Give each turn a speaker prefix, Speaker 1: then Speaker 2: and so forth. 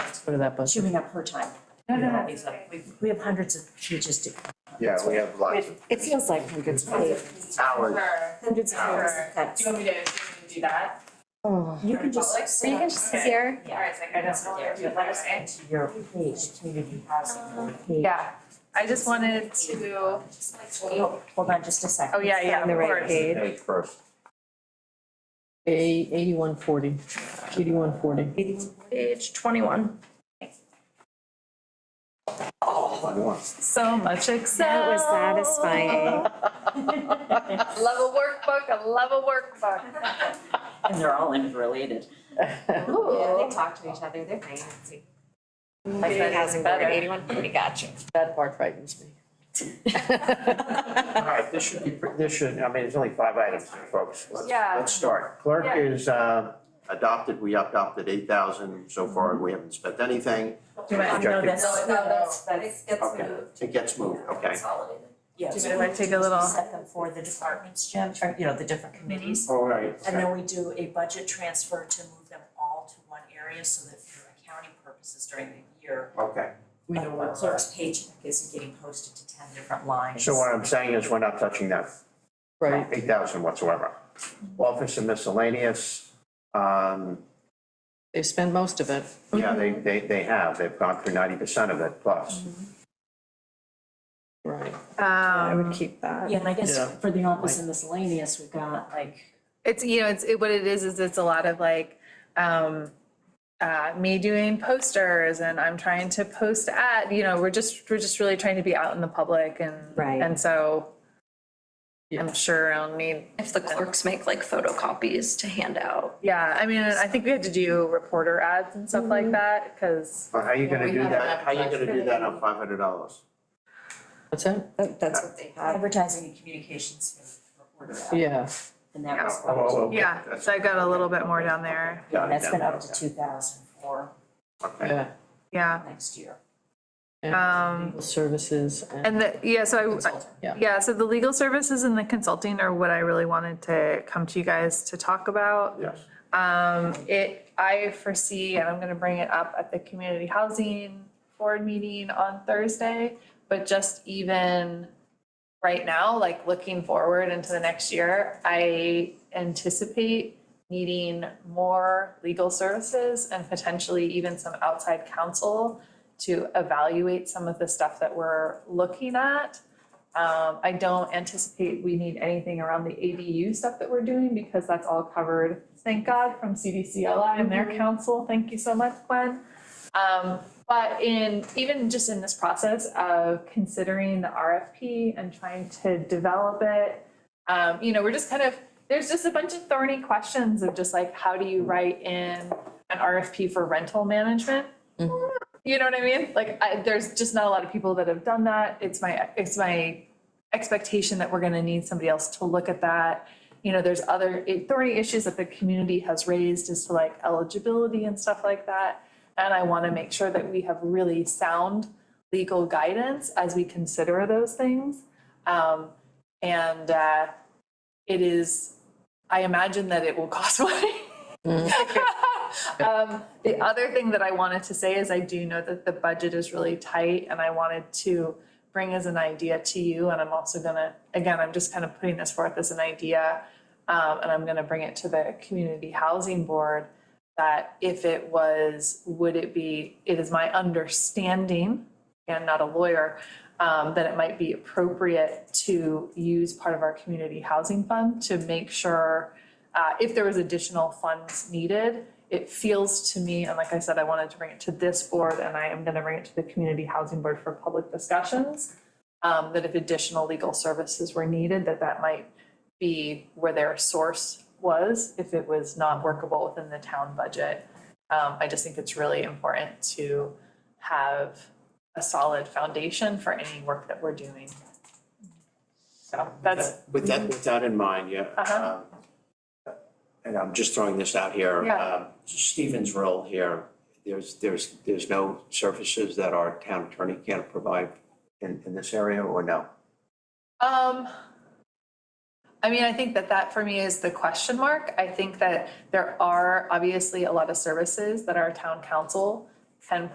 Speaker 1: put that bus.
Speaker 2: chewing up her time.
Speaker 1: No, no, no.
Speaker 2: These are- We, we have hundreds of teachers to.
Speaker 3: Yeah, we have lots of.
Speaker 1: It feels like hundreds of people.
Speaker 3: Hours.
Speaker 4: Sure.
Speaker 2: Hundreds of hours of
Speaker 4: Do
Speaker 2: cuts.
Speaker 4: you want me to, do you want me to do that?
Speaker 1: Oh,
Speaker 2: You can just.
Speaker 4: Or
Speaker 2: set
Speaker 4: you
Speaker 2: up-
Speaker 4: can just sit here.
Speaker 2: Yeah.
Speaker 4: Alright, so I can just
Speaker 2: Yeah,
Speaker 4: do it.
Speaker 2: Let us into your page, community housing page.
Speaker 4: Yeah, I just wanted to,
Speaker 2: Hold hold on just a second.
Speaker 4: Oh, yeah,
Speaker 2: Let's
Speaker 4: yeah,
Speaker 2: find the
Speaker 4: of
Speaker 2: right
Speaker 4: course.
Speaker 2: page.
Speaker 3: Hey, first.
Speaker 1: eighty, eighty-one forty, eighty-one forty.
Speaker 4: page twenty-one,
Speaker 3: One.
Speaker 4: so much Excel.
Speaker 5: That was satisfying.
Speaker 4: I Love a workbook, I love a workbook.
Speaker 2: And they're all interrelated.
Speaker 4: Ooh.
Speaker 5: talk to each other, they're fancy.
Speaker 4: Like that
Speaker 5: housing
Speaker 4: is
Speaker 5: board,
Speaker 4: better.
Speaker 5: eighty-one forty, got you.
Speaker 1: That part frightens me.
Speaker 3: All right, this should be, this should, I mean, there's only five items here, folks. Let's-
Speaker 4: Yeah.
Speaker 3: Let's start. Clerk
Speaker 4: Yeah.
Speaker 3: is uh, adopted, we adopted eight thousand so far, we haven't spent anything.
Speaker 4: Do I-
Speaker 3: Objective.
Speaker 2: No, that's, no, that's, that's.
Speaker 3: Okay, it gets moved, okay.
Speaker 2: Yeah.
Speaker 4: Do you
Speaker 2: so
Speaker 4: mind
Speaker 2: we
Speaker 4: if I take a
Speaker 2: just
Speaker 4: little-
Speaker 2: Set them for the departments, Jim, or, you know, the different committees.
Speaker 3: All right.
Speaker 2: And then we do a budget transfer to move them all to one area so that for accounting purposes during the year,
Speaker 3: Okay,
Speaker 2: we know what clerk's paycheck isn't getting posted to ten different lines.
Speaker 3: so what I'm saying is we're not touching that.
Speaker 1: Right,
Speaker 3: Eight thousand whatsoever. Office and miscellaneous, um,
Speaker 1: they spend most of it.
Speaker 3: yeah, they, they, they have, they've gone through ninety percent of it plus.
Speaker 1: Right.
Speaker 5: I
Speaker 4: Um,
Speaker 5: would keep that.
Speaker 2: Yeah, and I guess
Speaker 1: Yeah.
Speaker 2: for the office and miscellaneous, we've got like,
Speaker 4: it's, you know, it's, it, what it is, is it's a lot of like, um, uh, me doing posters and I'm trying to post at, you know, we're just, we're just really trying to be out in the public and,
Speaker 5: Right.
Speaker 4: and so
Speaker 1: Yeah.
Speaker 4: I'm sure I'll need
Speaker 6: If the clerks make like photocopies to hand out.
Speaker 4: Yeah, I mean, I think we had to do reporter ads and stuff
Speaker 5: Mm-hmm.
Speaker 4: like that, because,
Speaker 3: How are you gonna
Speaker 1: We
Speaker 3: do
Speaker 1: have
Speaker 3: that, how are you
Speaker 1: advertised.
Speaker 3: gonna do that on five hundred dollars?
Speaker 1: What's that?
Speaker 5: That- That's what they have.
Speaker 2: advertising and communications for reporter out,
Speaker 1: Yeah,
Speaker 2: and that was.
Speaker 4: yeah, so I've got a little bit more down there,
Speaker 2: Oh, Yeah, that's been up to two thousand for
Speaker 3: Okay,
Speaker 1: yeah,
Speaker 4: yeah.
Speaker 2: next year.
Speaker 4: Um,
Speaker 1: Legal services and,
Speaker 4: and the, yeah, so I,
Speaker 2: Consultant.
Speaker 1: yeah.
Speaker 4: yeah, so the legal services and the consulting are what I really wanted to come to you guys to talk about.
Speaker 3: yes.
Speaker 4: Um, it, I foresee, and I'm gonna bring it up at the community housing board meeting on Thursday, but just even right now, like looking forward into the next year, I anticipate needing more legal services and potentially even some outside counsel to evaluate some of the stuff that we're looking at. Um, I don't anticipate we need anything around the ADU stuff that we're doing because that's all covered, thank God, from CDCLI and their council. Thank you so much, Gwen. Um, but in, even just in this process of considering the RFP and trying to develop it, um, you know, we're just kind of, there's just a bunch of thorny questions of just like, how do you write in an RFP for rental management? You know what I mean? Like, I, there's just not a lot of people that have done that. It's my, it's my expectation that we're gonna need somebody else to look at that. You know, there's other thorny issues that the community has raised as to like eligibility and stuff like that. And I wanna make sure that we have really sound legal guidance as we consider those things. Um, and, uh, it is, I imagine that it will cost money. Um, the other thing that I wanted to say is I do know that the budget is really tight and I wanted to bring as an idea to you and I'm also gonna, again, I'm just kind of putting this forth as an idea. Um, and I'm gonna bring it to the community housing board that if it was, would it be, it is my understanding, and not a lawyer, um, that it might be appropriate to use part of our community housing fund to make sure uh, if there was additional funds needed, it feels to me, and like I said, I wanted to bring it to this board and I am gonna bring it to the community housing board for public discussions. um, that if additional legal services were needed, that that might be where their source was, if it was not workable within the town budget. Um, I just think it's really important to have a solid foundation for any work that we're doing. So that's,
Speaker 3: With that, with that in mind, yeah.
Speaker 4: Uh-huh.
Speaker 3: um, And I'm just throwing this out here.
Speaker 4: Yeah.
Speaker 3: um, Stephen's role here, there's, there's, there's no services that our town attorney can't provide in, in this area or no?
Speaker 4: Um, I mean, I think that that for me is the question mark. I think that there are obviously a lot of services that our town council can